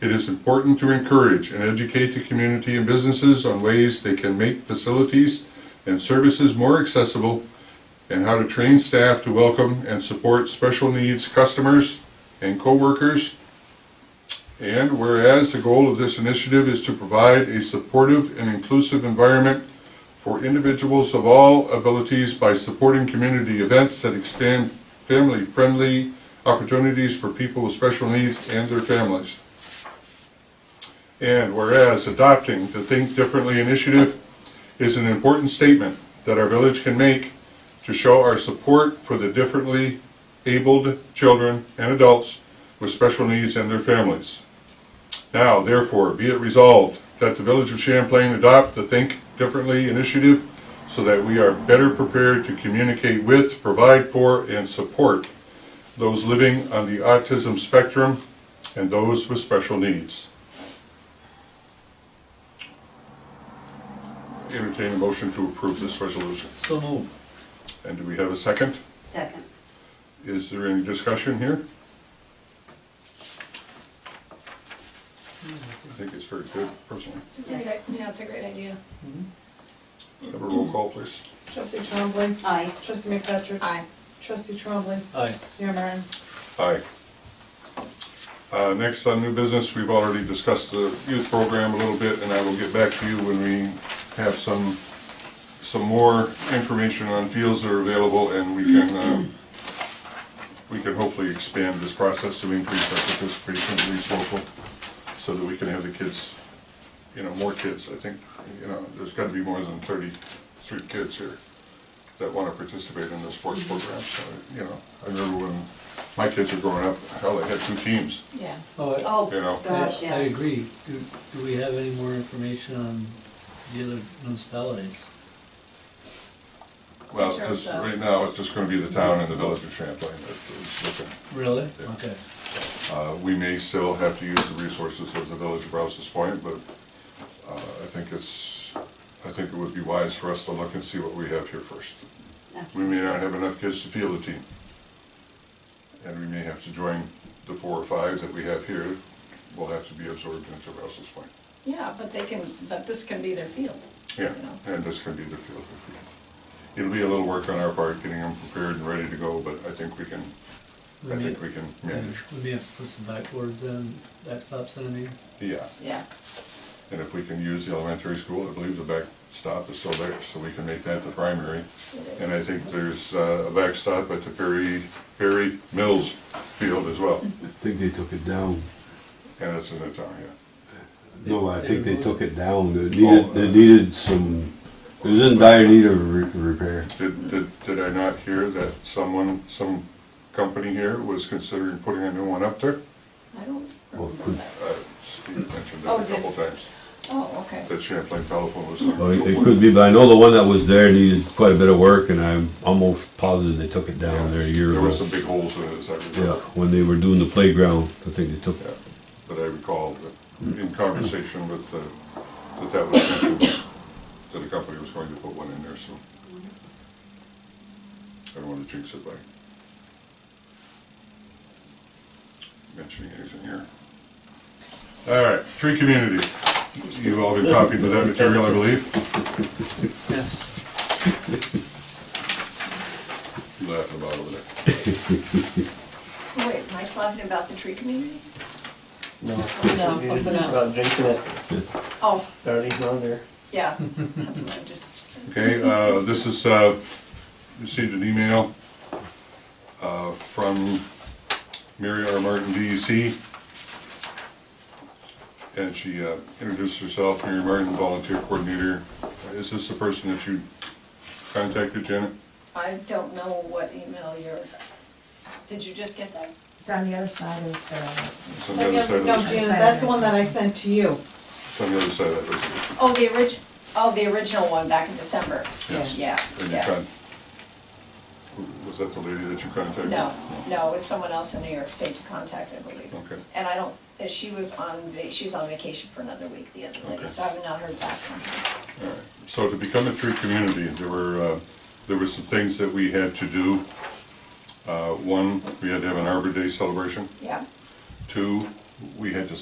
It is important to encourage and educate the community and businesses on ways they can make facilities and services more accessible and how to train staff to welcome and support special needs customers and coworkers. And whereas the goal of this initiative is to provide a supportive and inclusive environment for individuals of all abilities by supporting community events that expand family-friendly opportunities for people with special needs and their families. And whereas adopting the Think Differently initiative is an important statement that our village can make to show our support for the differently abled children and adults with special needs and their families. Now, therefore, be it resolved that the Village of Champlain adopt the Think Differently initiative so that we are better prepared to communicate with, provide for, and support those living on the autism spectrum and those with special needs. Entertain a motion to approve this resolution. So moved. And do we have a second? Second. Is there any discussion here? I think it's very good, personally. It's a great, i- yeah, it's a great idea. Have a roll call, please. Trustee Trombley. Aye. Trustee McFetrich. Aye. Trustee Trombley. Aye. Mayor Martin. Aye. Uh, Next on new business, we've already discussed the youth program a little bit, and I will get back to you when we have some, some more information on fields that are available, and we can, um, we can hopefully expand this process to increase our participation at least local, so that we can have the kids, you know, more kids. I think, you know, there's gotta be more than thirty-three kids here that want to participate in the sports program. So, you know, I remember when my kids were growing up, hell, they had two teams. Yeah. Oh, I- Oh, You know. gosh, I- I yes. agree. Do, do we have any more information on the other municipalities? Well, it's In terms just, of- right now, it's just going to be the town and the village of Champlain that is looking. Really? Yeah. Okay. Uh, We may still have to use the resources of the village of Rouse's Point, but uh, I think it's, I think it would be wise for us to look and see what we have here first. We may not have enough kids to field a team. And we may have to join the four or five that we have here, will have to be absorbed into Rouse's Point. Yeah, but they can, but this can be their field. Yeah, and this can be the field. if we- It'll be a little work on our part, getting them prepared and ready to go, but I think we can, We I may- think we can manage. We may have to put some backboards in, backstops in, I mean. Yeah, Yeah. and if we can use the elementary school, I believe the backstop is still there, so we can make that the primary. it And is. I think there's uh, a backstop at the Perry, Perry Mills Field as well, I think they took it down. and it's in the town, yeah. No, I think they took it down. It Oh, needed, uh, it needed some, it was in dire need of re- repair. Did, did, did I not hear that someone, some company here was considering putting a new one up there? I don't Well, remember could- that. Uh, Steve mentioned Oh, that a did- couple times, Oh, okay. that Champlain Telephone was. Well, it it could be, but I know the one that was there needed quite a bit of work and I'm almost positive they took it down there a year There were some ago. big holes in it, as I Yeah, remember. when they were doing the playground, I think they took, Yeah. But I recall Mm. that in conversation with, uh, the- that that was mentioned, that a company was going to put one in there, so. I don't want to jinx it by mentioning anything here. All right, tree community. You've all been copied with that material, I believe. Yes. You Laughing about over there. Wait, am I talking about the tree community? No, No, You something did else. about drinking at Oh, thirty, no, there. yeah, that's what I just, Okay, uh, this is, uh, received an email uh, from Mary R. Martin, E DEC. And she uh, introduced herself, Mary Martin, volunteer coordinator. Uh, Is this the person that you contacted, Janet? I don't know what email you're, did you just get that? It's on the other side of the, It's on the other side of No, this, Janet, that's the one that I sent to you. it's on the other side of that resolution. Oh, the orig, oh, the original one back in December. Yes. Yeah, And you yeah. con, was that the lady that you contacted? No, no, it was someone else in New York State to contact, I believe. Okay. And I don't, uh, she was on, va- she's on vacation for another week, the other lady, Okay. so I have not heard back from her. So to become a true community, there were, uh, there were some things that we had to do. Uh, One, we had to have an Arbor Day celebration. Yeah? Two, we had to